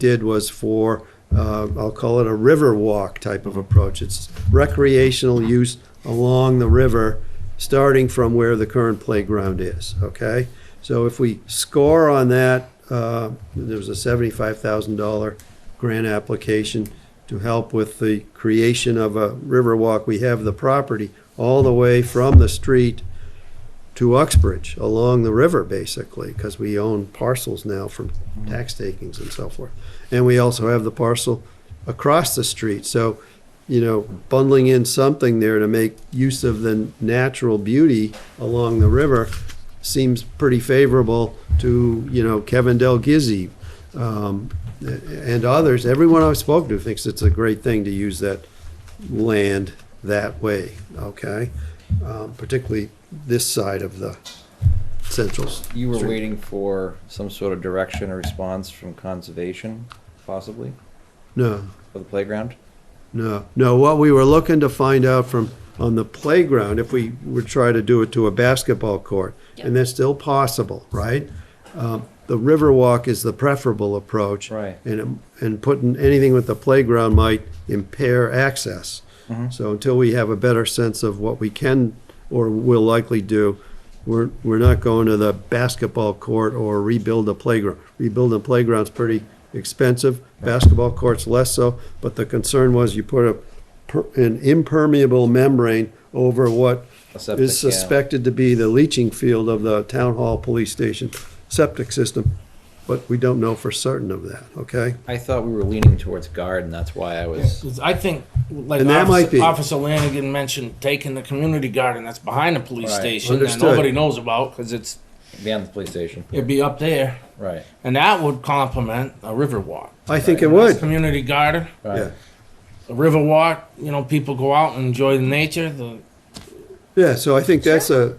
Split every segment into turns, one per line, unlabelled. did was for, uh, I'll call it a river walk type of approach. It's recreational use along the river, starting from where the current playground is, okay? So if we score on that, uh, there was a $75,000 grant application to help with the creation of a river walk. We have the property all the way from the street to Uxbridge along the river, basically, because we own parcels now from tax takings and so forth. And we also have the parcel across the street. So, you know, bundling in something there to make use of the natural beauty along the river seems pretty favorable to, you know, Kevin Del Gizzi um, and others. Everyone I've spoken to thinks it's a great thing to use that land that way, okay? Um, particularly this side of the central. s-
You were
street.
waiting for some sort of direction or response from conservation, possibly,
No,
for the playground?
no, no. What we were looking to find out from, on the playground, if we would try to do it to a basketball court, and that's still possible, right? Um, The Riverwalk is the preferable approach.
Right.
And, and putting anything with the playground might impair access. So until we have a better sense of what we can or will likely do, we're, we're not going to the basketball court or rebuild a playground. Rebuilding a playground's pretty expensive, basketball courts less so, but the concern was you put a, per- an impermeable membrane over what
A septic,
is
yeah.
suspected to be the leaching field of the town hall, police station, septic system, but we don't know for certain of that, okay?
I thought we were leaning towards guard, and that's why I was.
'Cause I think, like
And that
Officer,
might be-
Officer Lanigan mentioned, taking the community garden that's behind the police
Right.
station
Understood.
that nobody knows about because it's
Beyond the police station.
it'd be up there,
Right,
and that would complement a river walk.
I think it would,
Community garden,
yeah,
right.
a river walk. You know, people go out and enjoy the nature. The
yeah, so I think that's a,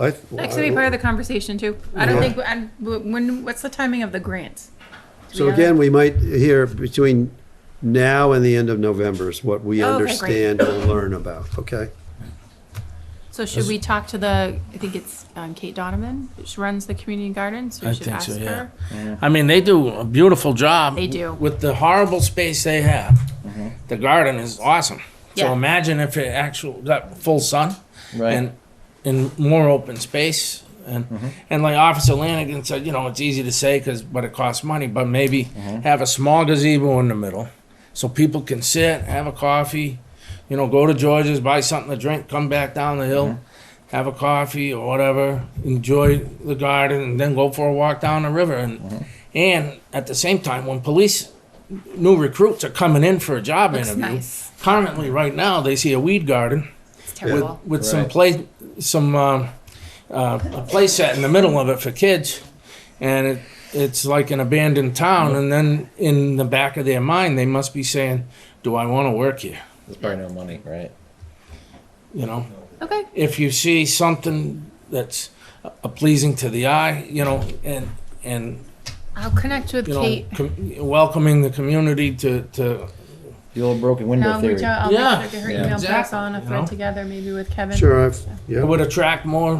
I.
That could be part of the conversation too. I don't
Yeah.
think, and w- when, what's the timing of the grants?
So
Do we know that?
again, we might hear between now and the end of November is what we
Oh, Okay, great.
understand and learn about, okay?
So should we talk to the, I think it's um, Kate Donovan, she runs the community garden, so
I
we should
think so,
ask
yeah.
her.
I mean, they do a beautiful job.
They do.
With the horrible space they have,
Mm-hmm.
the garden is awesome. So
Yeah.
imagine if it actual got full sun
Right.
and in more open space. And, and like Officer Lanigan said, you know, it's easy to say because, but it costs money. But maybe have a small gazebo in the middle so people can sit, have a coffee, you know, go to George's, buy something to drink, come back down the hill, have a coffee or whatever, enjoy the garden, and then go for a walk down the river. And and at the same time, when police new recruits are coming in for a job
Looks
interview,
nice.
currently right now they see a weed garden
It's terrible.
with some
Right.
play some um, uh, a play set in the middle of it for kids and it it's like an abandoned town and then in the back of their mind they must be saying do i want to work here
There's probably no money, right?
you know
Okay,
if you see something that's uh, pleasing to the eye you know and and
I'll connect with
you know
Kate.
com- welcoming the community to to
The old broken
Now
window
I'll reach
theory.
out, I'll make sure
Yeah.
to get her
Yeah.
email back
Exactly,
on a
you
thread
know?
together, maybe with Kevin.
Sure, I've,
it
yeah,
would attract more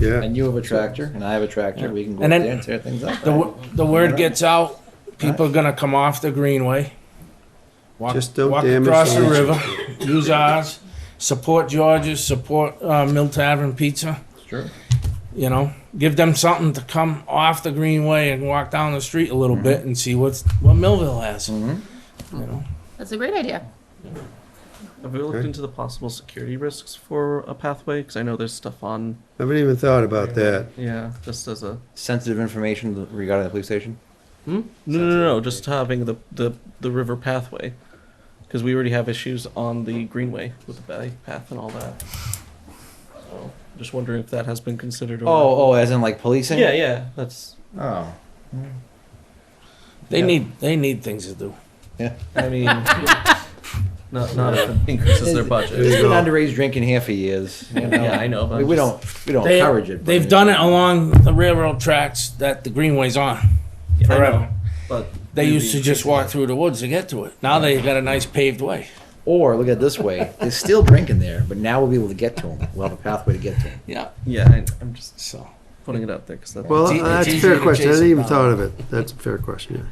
yeah,
And you have a tractor, and I have a tractor. We can go
And
up
then-
there and tear things up.
The,
right?
w- the word gets out, people are gonna come off the greenway. walk-
Just don't
walk
damage
Across
the
the river, use ours, support George's, support, uh, Mill Tavern Pizza,
Sure.
you know? Give them something to come off the greenway and walk down the street a
Mm-hmm.
little bit and see what's, what Millville has, you
Mhm.
know?
That's a great idea.
Have we looked into the possible security risks for a pathway? Because I know there's stuff on.
I haven't even thought about that.
Yeah, just as a.
Sensitive information regarding the police station.
No, no, no, no. Just having the the the river pathway, because we already have issues on the greenway with the bike path and all that. So, just wondering if that has been considered. Or
Oh, oh, as in like policing?
Yeah, yeah. That's.
Oh.
They
Yeah.
need, they need things to do.
I mean. Not, not if it increases their budget.
There's
you
been
go.
underage drinking here for years. you know?
Yeah, I know. But
We,
I'm
we
just-
don't, we don't
They-
encourage it. but-
They've done it along the railroad tracks that the greenway's on
I know,
forever.
But
They
maybe-
used to just walk through the woods to get to it. Now they got a nice paved way.
Or look at it this way: they're still drinking there, but now we'll be able to get to them. We'll have a pathway to get to them.
Yeah.
Yeah, I, I'm just
So.
putting it out there because that's.
Well,
It's e-
that's
it's
a fair
easier to
question, I
chase
didn't even
it
thought of it, that's a fair question,